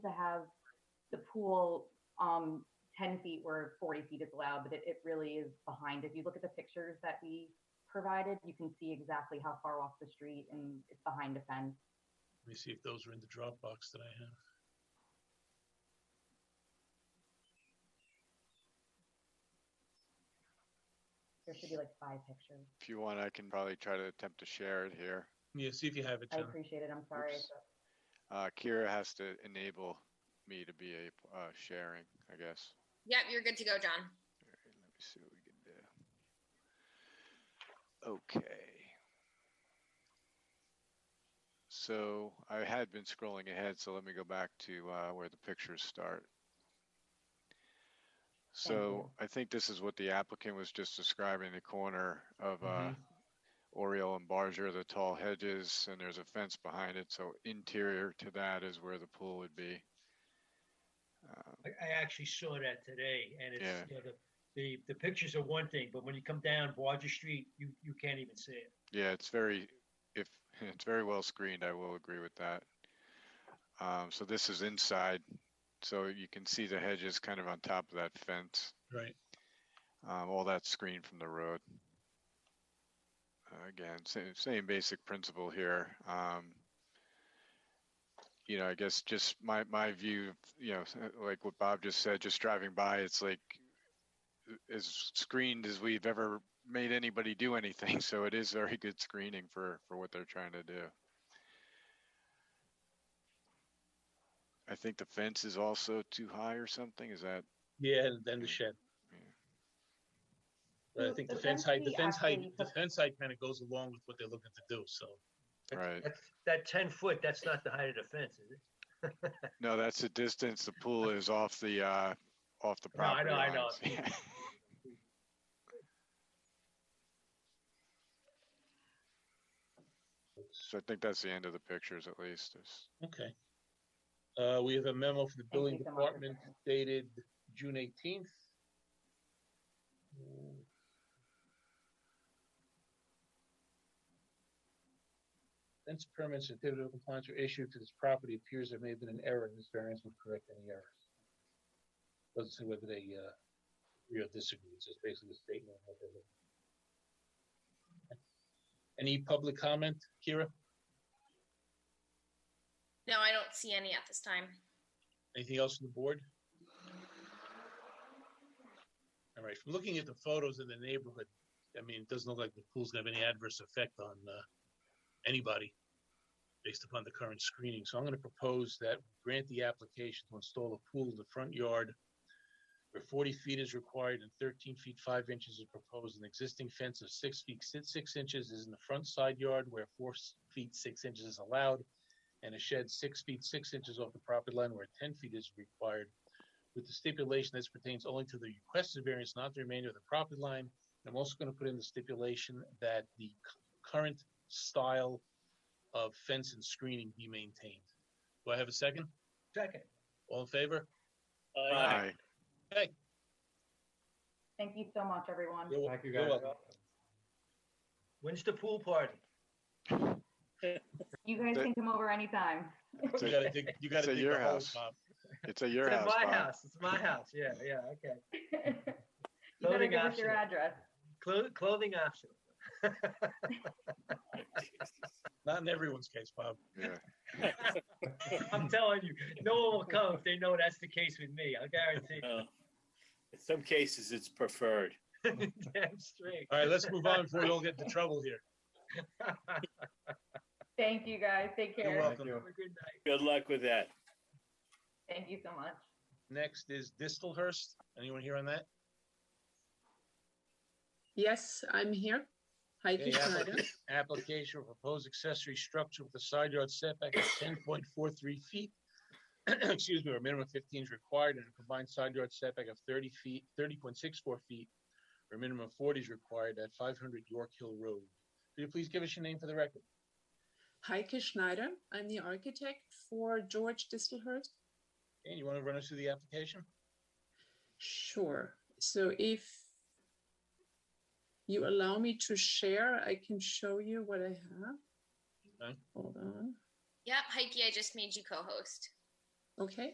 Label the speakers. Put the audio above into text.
Speaker 1: have the pool, um, ten feet where forty feet is allowed, but it, it really is behind. If you look at the pictures that we provided, you can see exactly how far off the street and it's behind a fence.
Speaker 2: Let me see if those are in the Dropbox that I have.
Speaker 1: There should be like five pictures.
Speaker 3: If you want, I can probably try to attempt to share it here.
Speaker 2: Yeah, see if you have it,
Speaker 1: I
Speaker 2: John.
Speaker 1: appreciate it. I'm sorry.
Speaker 3: Oops. Uh, Kira has to enable me to be a, uh, sharing, I guess.
Speaker 4: Yep, you're good to go, John.
Speaker 3: All right, let me see what we can do. Okay. So I had been scrolling ahead, so let me go back to uh, where the pictures start. So I think this is what the applicant was just describing, the corner of uh,
Speaker 5: Mm-hmm.
Speaker 2: Mhm.
Speaker 3: Oriole and Barger, the tall hedges, and there's a fence behind it. So interior to that is where the pool would be. Uh,
Speaker 5: I, I actually saw that today and
Speaker 3: Yeah.
Speaker 5: it's, you know, the, the, the pictures are one thing, but when you come down Barger Street, you, you can't even see it.
Speaker 3: Yeah, it's very, if, it's very well screened, I will agree with that. Um, so this is inside, so you can see the hedges kind of on top of that fence.
Speaker 2: Right.
Speaker 3: Um, all that's screened from the road. Uh, Again, same, same basic principle here. Um, you know, I guess just my, my view, you know, like what Bob just said, just driving by, it's like uh, as screened as we've ever made anybody do anything. So it is very good screening for, for what they're trying to do. I think the fence is also too high or something. Is that,
Speaker 2: Yeah, and then the shed.
Speaker 3: Yeah.
Speaker 2: But I
Speaker 1: The-
Speaker 2: think
Speaker 1: the
Speaker 2: the fence height, the
Speaker 1: density
Speaker 2: fence height,
Speaker 1: actually-
Speaker 2: the fence height kind of goes along with what they're looking to do, so.
Speaker 5: That's-
Speaker 3: Right.
Speaker 5: that's- That ten foot, that's not the height of the fence, is it?
Speaker 3: no, that's the distance. The pool is off the, uh, off the
Speaker 5: No, I
Speaker 3: property
Speaker 5: know, I know.
Speaker 3: lines. Yeah. So I think that's the end of the pictures at least. It's-
Speaker 2: Okay. Uh, we have a memo from the building
Speaker 1: you so much for
Speaker 2: department
Speaker 1: sharing.
Speaker 2: dated June eighteenth. Since permits and certificate of compliance were issued to this property, it appears there may have been an error, and this variance would correct any errors. Doesn't say whether they, uh, agree or disagree, it's just basically a statement of what they're looking for. Any public comment, Kira?
Speaker 4: No, I don't see any at this time.
Speaker 2: Anything else on the board? All right, from looking at the photos in the neighborhood, I mean, it doesn't look like the pool's gonna have any adverse effect on, uh, anybody based upon the current screening, so I'm gonna propose that we grant the application to install a pool in the front yard where forty feet is required and thirteen feet five inches is proposed, an existing fence of six feet six six inches is in the front side yard where four s- feet six inches is allowed, and a shed six feet six inches off the property line where ten feet is required, with the stipulation this pertains only to the requested variance, not the remainder of the property line. And I'm also gonna put in the stipulation that the c- current style of fence and screening be maintained. Do I have a second?
Speaker 5: Second,
Speaker 2: All in favor?
Speaker 5: Oh,
Speaker 3: Aye.
Speaker 1: Thank you so much, everyone.
Speaker 2: You're wel-
Speaker 6: Thank you,
Speaker 2: you're
Speaker 6: guys.
Speaker 2: welcome.
Speaker 5: when's the pool party?
Speaker 1: You guys
Speaker 3: The-
Speaker 1: can come over anytime.
Speaker 3: It's
Speaker 2: You
Speaker 3: at,
Speaker 2: gotta dig, you gotta
Speaker 3: It's at
Speaker 2: dig
Speaker 3: your
Speaker 2: the hole,
Speaker 3: house.
Speaker 2: Bob.
Speaker 3: it's at your
Speaker 5: It's at
Speaker 3: house.
Speaker 5: my
Speaker 3: Bob.
Speaker 5: house, it's my house, yeah, yeah, okay.
Speaker 1: You better
Speaker 5: Voting
Speaker 1: give us your
Speaker 5: optional.
Speaker 1: address.
Speaker 5: Clo- Clothing optional.
Speaker 2: Not in everyone's case, Bob.
Speaker 3: Yeah.
Speaker 5: I'm telling you, no one will come if they know that's the case with me, I guarantee.
Speaker 7: Uh, In some cases, it's preferred.
Speaker 5: Damn straight.
Speaker 2: All right, let's move on before we all get into trouble here.
Speaker 1: Thank you, guys. Take
Speaker 2: You're
Speaker 1: care.
Speaker 6: Thank
Speaker 2: welcome.
Speaker 6: you.
Speaker 5: Have a good night.
Speaker 7: Good luck with that.
Speaker 1: Thank you so much.
Speaker 2: Next is Distelhurst. Anyone here on that?
Speaker 8: Yes, I'm here. Heidi
Speaker 2: Okay, applica-
Speaker 8: Schneider.
Speaker 2: application of proposed accessory structure with a side yard setback of ten point four three feet. Excuse me, or minimum fifteen is required and a combined side yard setback of thirty feet, thirty point six four feet. Or minimum forty is required at five hundred York Hill Road. Could you please give us your name for the record?
Speaker 8: Heike Schneider. I'm the architect for George Distelhurst.
Speaker 2: And you want to run us through the application?
Speaker 8: Sure. So if you allow me to share, I can show you what I have.
Speaker 2: Okay.
Speaker 8: Hold on.
Speaker 4: Yep, Heike, I just made you co-host.
Speaker 8: Okay.